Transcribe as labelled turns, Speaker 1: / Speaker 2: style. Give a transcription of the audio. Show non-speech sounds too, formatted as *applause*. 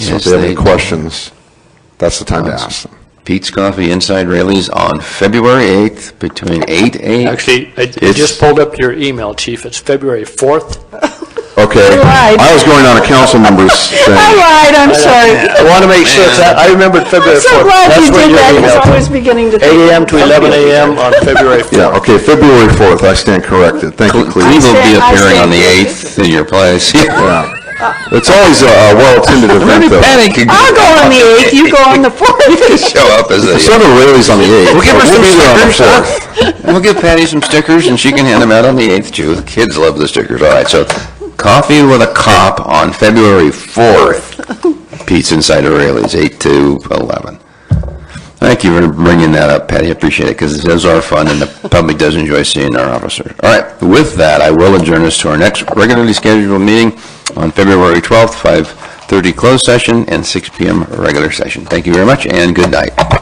Speaker 1: So if
Speaker 2: Yes,
Speaker 1: they have any
Speaker 2: they-
Speaker 1: questions, that's the time to
Speaker 2: Awesome.
Speaker 1: ask them.
Speaker 2: Pete's Coffee Inside Rayleigh's on February 8th between 8 a.m.
Speaker 3: Actually, I I
Speaker 2: It's-
Speaker 3: just pulled up your email, Chief. It's February 4th.
Speaker 1: Okay.
Speaker 4: You're right.
Speaker 1: I was going on a council
Speaker 4: *laughs*
Speaker 1: member's
Speaker 4: All
Speaker 1: thing.
Speaker 4: right, I'm sorry.
Speaker 3: I want to make sure, that I remembered
Speaker 4: I'm
Speaker 3: February 4th.
Speaker 4: so glad
Speaker 3: That's
Speaker 4: you
Speaker 3: what
Speaker 4: did
Speaker 3: your
Speaker 4: that,
Speaker 3: email-
Speaker 4: because I was beginning to.
Speaker 3: 8 a.m. to 11 a.m. on February 4th.
Speaker 1: Yeah, okay, February 4th, I stand corrected. Thank you,
Speaker 2: Cleve
Speaker 1: Cleve.
Speaker 2: will be
Speaker 4: stand- I
Speaker 2: appearing on the
Speaker 4: stand-
Speaker 2: 8th in your place. *laughs*
Speaker 1: Yeah. It's always a a well-attended event, though.
Speaker 4: I'll go on the 8th, you go on
Speaker 2: *laughs*
Speaker 4: the 4th.
Speaker 2: Show up as a,
Speaker 1: Son of Rayleigh's on the 8th.
Speaker 2: We'll give her
Speaker 1: so
Speaker 2: some
Speaker 1: be there on the
Speaker 2: stickers, huh?
Speaker 1: 4th.
Speaker 2: *laughs* we'll give Patty some stickers, and she can hand them out on the 8th, too. The kids love the stickers. All right, so Coffee with a Cop on February 4th. Pete's Inside O'Reilly's, 8 to 11. Thank you for bringing that up, Patty, I appreciate it, because those are fun, and the public does enjoy seeing our officers. All right, with that, I will adjourn us to our next regularly scheduled meeting on February 12th, 5:30 closed session, and 6 PM regular session. Thank you very much, and good night.